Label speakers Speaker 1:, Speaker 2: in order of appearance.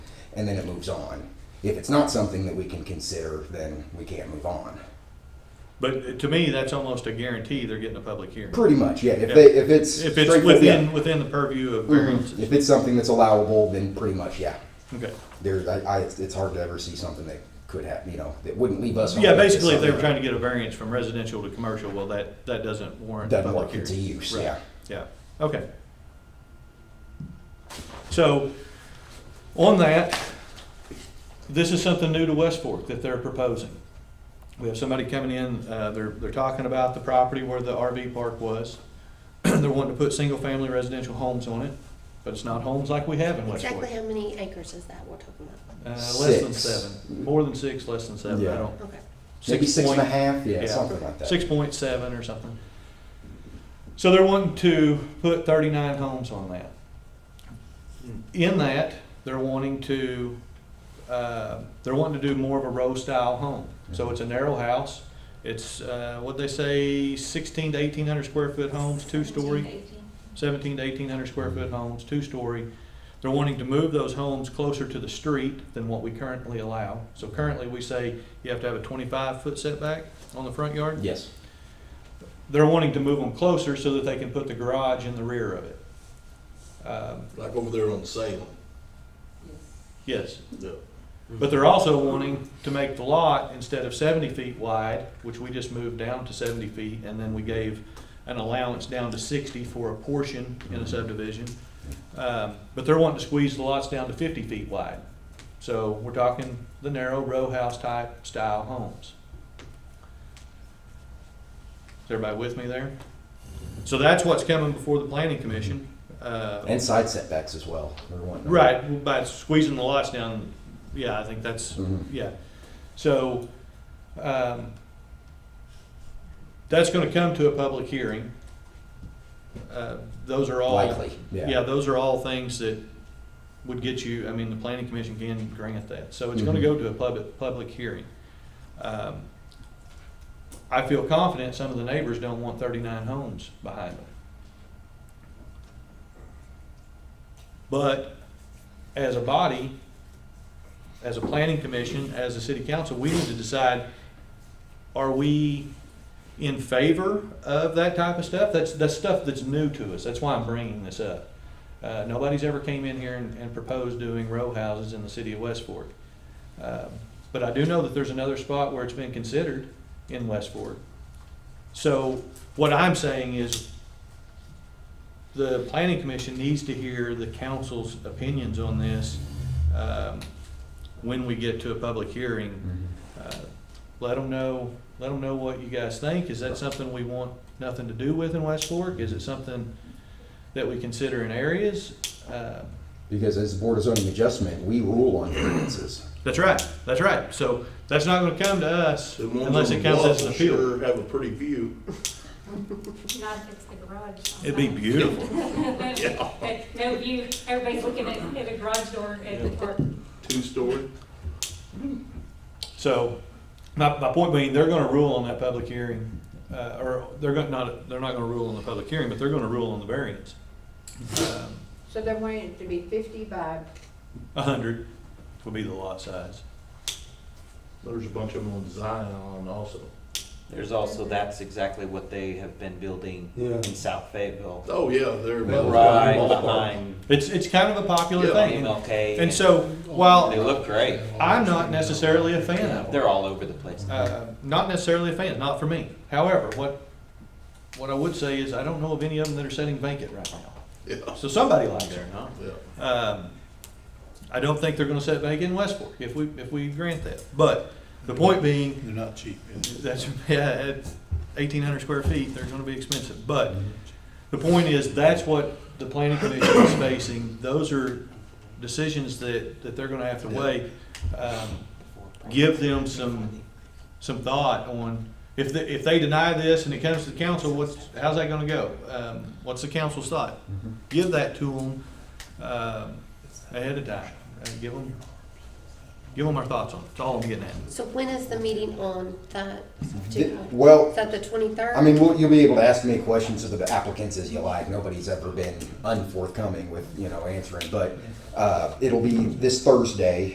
Speaker 1: and then it moves on. If it's not something that we can consider, then we can't move on.
Speaker 2: But to me, that's almost a guarantee they're getting a public hearing.
Speaker 1: Pretty much, yeah. If, They, if it's
Speaker 2: If it's
Speaker 1: straightforward, yeah.
Speaker 2: within, within the purview of
Speaker 1: Mhm.
Speaker 2: variances.
Speaker 1: if it's something that's allowable, then pretty much, yeah.
Speaker 2: Okay.
Speaker 1: There's, I, I, it's it's hard to ever see something that could happen, you know, that wouldn't leave us.
Speaker 2: Yeah, basically, if they were trying to get a variance from residential to commercial, well, that, that doesn't warrant a
Speaker 1: Doesn't
Speaker 2: public
Speaker 1: work into
Speaker 2: hearing.
Speaker 1: use,
Speaker 2: Right.
Speaker 1: yeah.
Speaker 2: Yeah, okay. So, on that, this is something new to West Fork that they're proposing. We have somebody coming in, uh, they're, they're talking about the property where the RV park was. They're wanting to put single-family residential homes on it, but it's not homes like we have in West Fork.
Speaker 3: Exactly how many acres is that we're talking about?
Speaker 2: Uh, less than
Speaker 1: Six.
Speaker 2: seven, more than six, less than seven, I
Speaker 1: Yeah.
Speaker 2: don't.
Speaker 3: Okay.
Speaker 1: Maybe six and a
Speaker 2: point-
Speaker 1: half, yeah,
Speaker 2: yeah.
Speaker 1: something like that.
Speaker 2: six point seven or something. So they're wanting to put thirty-nine homes on that. In that, they're wanting to, uh, they're wanting to do more of a row-style home. So it's a narrow house. It's, uh, what'd they say, sixteen to eighteen hundred square foot homes, two-story? seventeen to eighteen hundred square foot homes, two-story. They're wanting to move those homes closer to the street than what we currently allow. So currently, we say you have to have a twenty-five foot setback on the front yard.
Speaker 1: Yes.
Speaker 2: They're wanting to move them closer so that they can put the garage in the rear of it. Um,
Speaker 4: Like over there on Salem.
Speaker 2: Yes,
Speaker 4: Yeah.
Speaker 2: but they're also wanting to make the lot, instead of seventy feet wide, which we just moved down to seventy feet, and then we gave an allowance down to sixty for a portion in a subdivision. Um, But they're wanting to squeeze the lots down to fifty feet wide. So we're talking the narrow row house type style homes. Is everybody with me there? So that's what's coming before the planning commission. Uh,
Speaker 1: And side setbacks as well. We're wanting to-
Speaker 2: Right, by squeezing the lots down, yeah, I think that's,
Speaker 1: Mhm.
Speaker 2: yeah. So, um, that's gonna come to a public hearing. Uh, Those are all.
Speaker 1: Likely, yeah.
Speaker 2: Yeah, those are all things that would get you, I mean, the planning commission can grant that, so it's gonna
Speaker 1: Mhm.
Speaker 2: go to a public, public hearing. Um, I feel confident some of the neighbors don't want thirty-nine homes behind them. But as a body, as a planning commission, as a city council, we need to decide, are we in favor of that type of stuff? That's, that's stuff that's new to us. That's why I'm bringing this up. Uh, nobody's ever came in here and, and proposed doing row houses in the city of West Fork. Um, But I do know that there's another spot where it's been considered in West Fork. So what I'm saying is the planning commission needs to hear the council's opinions on this, um, when we get to a public hearing.
Speaker 1: Mhm.
Speaker 2: Uh, Let them know, let 'em know what you guys think. Is that something we want nothing to do with in West Fork? Is it something that we consider in areas? Uh,
Speaker 1: Because as the Board of Zoning Adjustment, we rule on variances.
Speaker 2: That's right, that's right. So that's not gonna come to us
Speaker 4: The ones
Speaker 2: unless
Speaker 4: on
Speaker 2: it
Speaker 4: the
Speaker 2: comes
Speaker 4: bluff
Speaker 2: as an
Speaker 4: will
Speaker 2: appeal.
Speaker 4: Sure have a pretty view.
Speaker 5: Not if it's the garage.
Speaker 2: It'd be beautiful.
Speaker 5: Yeah. No view, everybody's looking at, at a garage door at the park.
Speaker 4: Two-story.
Speaker 2: So, my, my point being, they're gonna rule on that public hearing, uh, or they're gonna, not, they're not gonna rule on the public hearing, but they're gonna rule on the variance. Um,
Speaker 6: So they're wanting it to be fifty by,
Speaker 2: A hundred will be the lot size.
Speaker 4: There's a bunch of them on Zion also.
Speaker 7: There's also, that's exactly what they have been building in South Fayetteville.
Speaker 4: Oh, yeah, they're.
Speaker 7: Right behind
Speaker 2: It's, it's kind of a popular
Speaker 4: Yeah.
Speaker 2: thing.
Speaker 7: MLK.
Speaker 2: And so, while
Speaker 7: They look great.
Speaker 2: I'm not necessarily a fan of them,
Speaker 7: They're all over the place.
Speaker 2: uh, not necessarily a fan, not for me. However, what, what I would say is I don't know of any of them that are sitting vacant right now.
Speaker 4: Yeah,
Speaker 2: So somebody likes them.
Speaker 7: They're not.
Speaker 4: yeah.
Speaker 2: Um, I don't think they're gonna set back in West Fork if we, if we grant that. But the point being,
Speaker 8: They're not cheap.
Speaker 2: that's, yeah, at eighteen hundred square feet, they're gonna be expensive. But the point is, that's what the planning commission is facing. Those are decisions that, that they're gonna have to weigh. Um, Give them some, some thought on, if, they- if they deny this and it comes to the council, what's, how's that gonna go? Um, What's the council's thought? Give that to them um, ahead of time. Uh, Give them, give them our thoughts on it. That's all I'm getting at.
Speaker 3: So when is the meeting on that?
Speaker 1: Th-
Speaker 3: particular-
Speaker 1: Well,
Speaker 3: Is that the twenty-third?
Speaker 1: I mean, we'll- you'll be able to ask me questions of the applicants as you like. Nobody's ever been unforthcoming with, you know, answering. But uh, it'll be this Thursday,